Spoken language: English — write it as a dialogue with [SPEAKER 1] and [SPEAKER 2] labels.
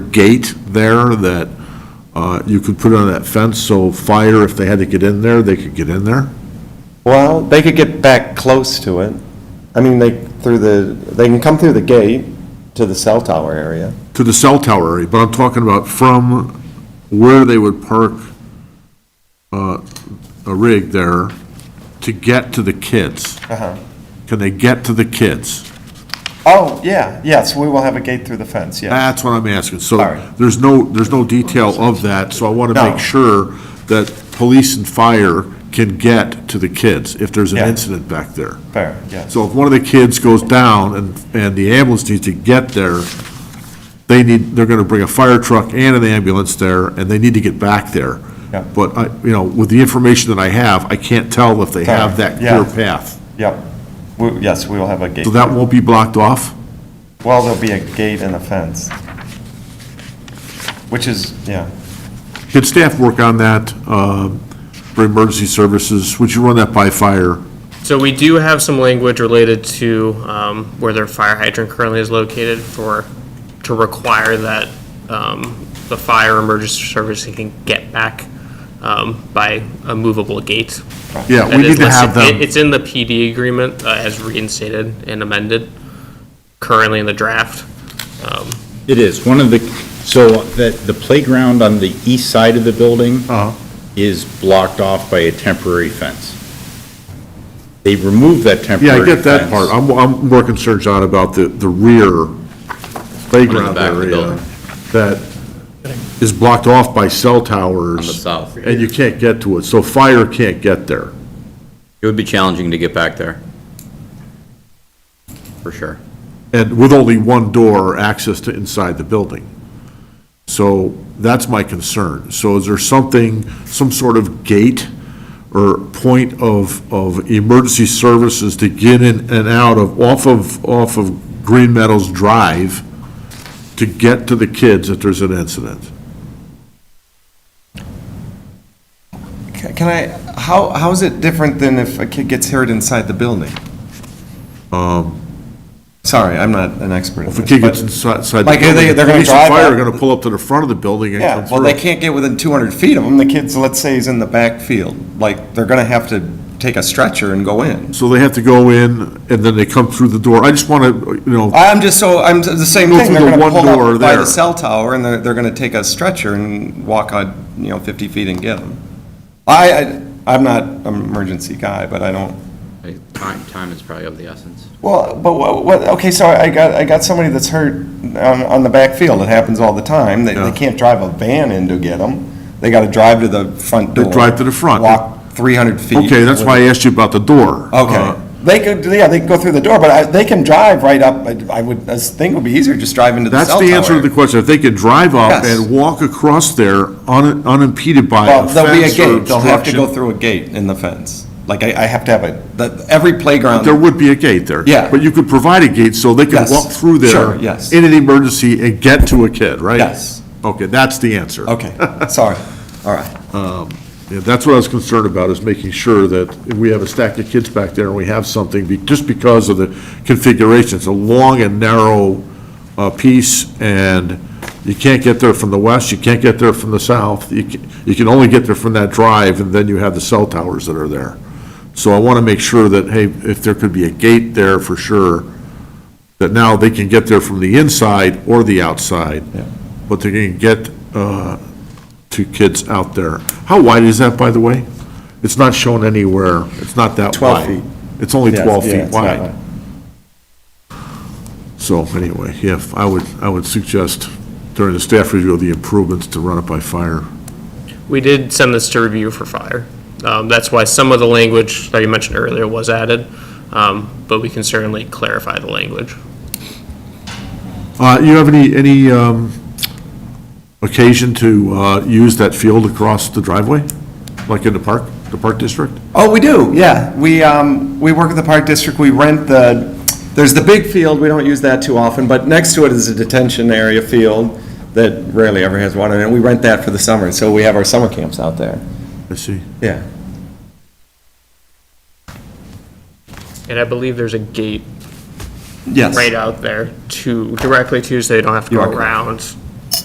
[SPEAKER 1] gate there that uh, you could put on that fence, so fire, if they had to get in there, they could get in there?
[SPEAKER 2] Well, they could get back close to it. I mean, they, through the, they can come through the gate to the cell tower area.
[SPEAKER 1] To the cell tower area, but I'm talking about from where they would park uh, a rig there to get to the kids.
[SPEAKER 2] Uh-huh.
[SPEAKER 1] Can they get to the kids?
[SPEAKER 2] Oh, yeah, yes, we will have a gate through the fence, yeah.
[SPEAKER 1] That's what I'm asking. So
[SPEAKER 2] All right.
[SPEAKER 1] there's no, there's no detail of that, so I want to
[SPEAKER 2] No.
[SPEAKER 1] make sure that police and fire can get to the kids if there's an
[SPEAKER 2] Yeah.
[SPEAKER 1] incident back there.
[SPEAKER 2] Fair, yes.
[SPEAKER 1] So if one of the kids goes down and, and the ambulance needs to get there, they need, they're gonna bring a fire truck and an ambulance there, and they need to get back there.
[SPEAKER 2] Yeah.
[SPEAKER 1] But I, you know, with the information that I have, I can't tell if they
[SPEAKER 2] Sorry.
[SPEAKER 1] have that
[SPEAKER 2] Yeah.
[SPEAKER 1] clear path.
[SPEAKER 2] Yep. We- Yes, we will have a gate.
[SPEAKER 1] So that won't be blocked off?
[SPEAKER 2] Well, there'll be a gate and a fence. Which is, yeah,
[SPEAKER 1] Can staff work on that, um, for emergency services? Would you run that by fire?
[SPEAKER 3] So we do have some language related to um, where their fire hydrant currently is located for, to require that um, the fire emergency service can get back um, by a movable gate.
[SPEAKER 1] Yeah,
[SPEAKER 3] That
[SPEAKER 1] we need
[SPEAKER 3] is
[SPEAKER 1] to
[SPEAKER 3] listed-
[SPEAKER 1] have them.
[SPEAKER 3] it- It's in the PD agreement uh, as reinstated and amended, currently in the draft. Um,
[SPEAKER 4] It is. One of the, so that the playground on the east side of the building
[SPEAKER 1] Uh-huh.
[SPEAKER 4] is blocked off by a temporary fence. They removed that temporary
[SPEAKER 1] Yeah, I get
[SPEAKER 4] fence.
[SPEAKER 1] that part. I'm, I'm more concerned, John, about the, the rear playground
[SPEAKER 5] back of the
[SPEAKER 1] area
[SPEAKER 5] building.
[SPEAKER 1] that is blocked off by cell towers.
[SPEAKER 5] On the south.
[SPEAKER 1] And you can't get to it, so fire can't get there.
[SPEAKER 5] It would be challenging to get back there. For sure.
[SPEAKER 1] And with only one door or access to inside the building. So that's my concern. So is there something, some sort of gate or point of, of emergency services to get in and out of, off of, off of Green Meadows Drive to get to the kids if there's an incident?
[SPEAKER 2] Ca- Can I, how, how is it different than if a kid gets hurt inside the building? Sorry, I'm not an expert in
[SPEAKER 1] Um, If a
[SPEAKER 2] this,
[SPEAKER 1] kid
[SPEAKER 2] but-
[SPEAKER 1] gets inside, inside the
[SPEAKER 2] Like, are
[SPEAKER 1] building,
[SPEAKER 2] they-
[SPEAKER 1] the
[SPEAKER 2] they're gonna
[SPEAKER 1] police
[SPEAKER 2] drive
[SPEAKER 1] and fire are
[SPEAKER 2] up-
[SPEAKER 1] gonna pull up to the front of the building and come
[SPEAKER 2] Yeah,
[SPEAKER 1] through.
[SPEAKER 2] well, they can't get within 200 feet of them, the kid's, let's say, is in the back field. Like, they're gonna have to take a stretcher and go in.
[SPEAKER 1] So they have to go in, and then they come through the door. I just wanna, you know,
[SPEAKER 2] I'm just so, I'm the same
[SPEAKER 1] Go
[SPEAKER 2] thing,
[SPEAKER 1] through
[SPEAKER 2] they're
[SPEAKER 1] the
[SPEAKER 2] gonna
[SPEAKER 1] one
[SPEAKER 2] pull
[SPEAKER 1] door
[SPEAKER 2] up by
[SPEAKER 1] there.
[SPEAKER 2] the cell tower, and they're, they're gonna take a stretcher and walk out, you know, 50 feet and get them. I, I- I'm not an emergency guy, but I don't
[SPEAKER 5] Like, Time, time is probably of the essence.
[SPEAKER 2] Well, but what, what, okay, so I got, I got somebody that's hurt on, on the backfield, it happens all the time, they,
[SPEAKER 1] Yeah.
[SPEAKER 2] they can't drive a van in to get them, they gotta drive to the front
[SPEAKER 1] They
[SPEAKER 2] door.
[SPEAKER 1] drive to the front.
[SPEAKER 2] Walk three hundred feet.
[SPEAKER 1] okay, that's why I asked you about the door. Uh,
[SPEAKER 2] Okay, they could, yeah, they can go through the door, but I, they can drive right up, I- I would, I think it would be easier just drive into the
[SPEAKER 1] That's
[SPEAKER 2] cell tower.
[SPEAKER 1] the answer to the question. If they could drive up
[SPEAKER 2] Yes.
[SPEAKER 1] and walk across there un- unimpeded by
[SPEAKER 2] Well,
[SPEAKER 1] a
[SPEAKER 2] there'll be a
[SPEAKER 1] fence or
[SPEAKER 2] gate, they'll have to go
[SPEAKER 1] obstruction.
[SPEAKER 2] through a gate in the fence, like, I, I have to have a, that, every playground.
[SPEAKER 1] There would be a gate there.
[SPEAKER 2] Yeah.
[SPEAKER 1] But you could provide a gate so they could
[SPEAKER 2] Yes.
[SPEAKER 1] walk through there.
[SPEAKER 2] Sure, yes.
[SPEAKER 1] In an emergency and get to a kid, right?
[SPEAKER 2] Yes.
[SPEAKER 1] Okay, that's the answer.
[SPEAKER 2] Okay, sorry, all right.
[SPEAKER 1] Yeah, that's what I was concerned about, is making sure that if we have a stack of kids back there and we have something, be- just because of the configuration, it's a long and narrow uh, piece, and you can't get there from the west, you can't get there from the south, you can, you can only get there from that drive, and then you have the cell towers that are there. So I want to make sure that, hey, if there could be a gate there for sure, that now they can get there from the inside or the outside, but they can get uh, to kids out there. How wide is that, by the way? It's not shown anywhere, it's not that wide.
[SPEAKER 2] 12 feet.
[SPEAKER 1] It's only
[SPEAKER 2] Yes,
[SPEAKER 1] 12
[SPEAKER 2] yeah,
[SPEAKER 1] feet
[SPEAKER 2] it's not
[SPEAKER 1] wide.
[SPEAKER 2] wide.
[SPEAKER 1] So anyway, yeah, I would, I would suggest during the staff review of the improvements to run it by fire.
[SPEAKER 3] We did send this to review for fire. Um, That's why some of the language that you mentioned earlier was added, um, but we can certainly clarify the language.
[SPEAKER 1] Uh, You have any, any um, occasion to uh, use that field across the driveway, like in the park, the park district?
[SPEAKER 2] Oh, we do, yeah. We, um, we work at the Park District, we rent the, there's the big field, we don't use that too often, but next to it is a detention area field that rarely ever has water in it. We rent that for the summer, so we have our summer camps out there.
[SPEAKER 1] I see.
[SPEAKER 2] Yeah.
[SPEAKER 3] And I believe there's a gate
[SPEAKER 2] Yes.
[SPEAKER 3] right out there to, directly to, so you don't have to
[SPEAKER 2] You
[SPEAKER 3] go
[SPEAKER 2] are correct.
[SPEAKER 3] around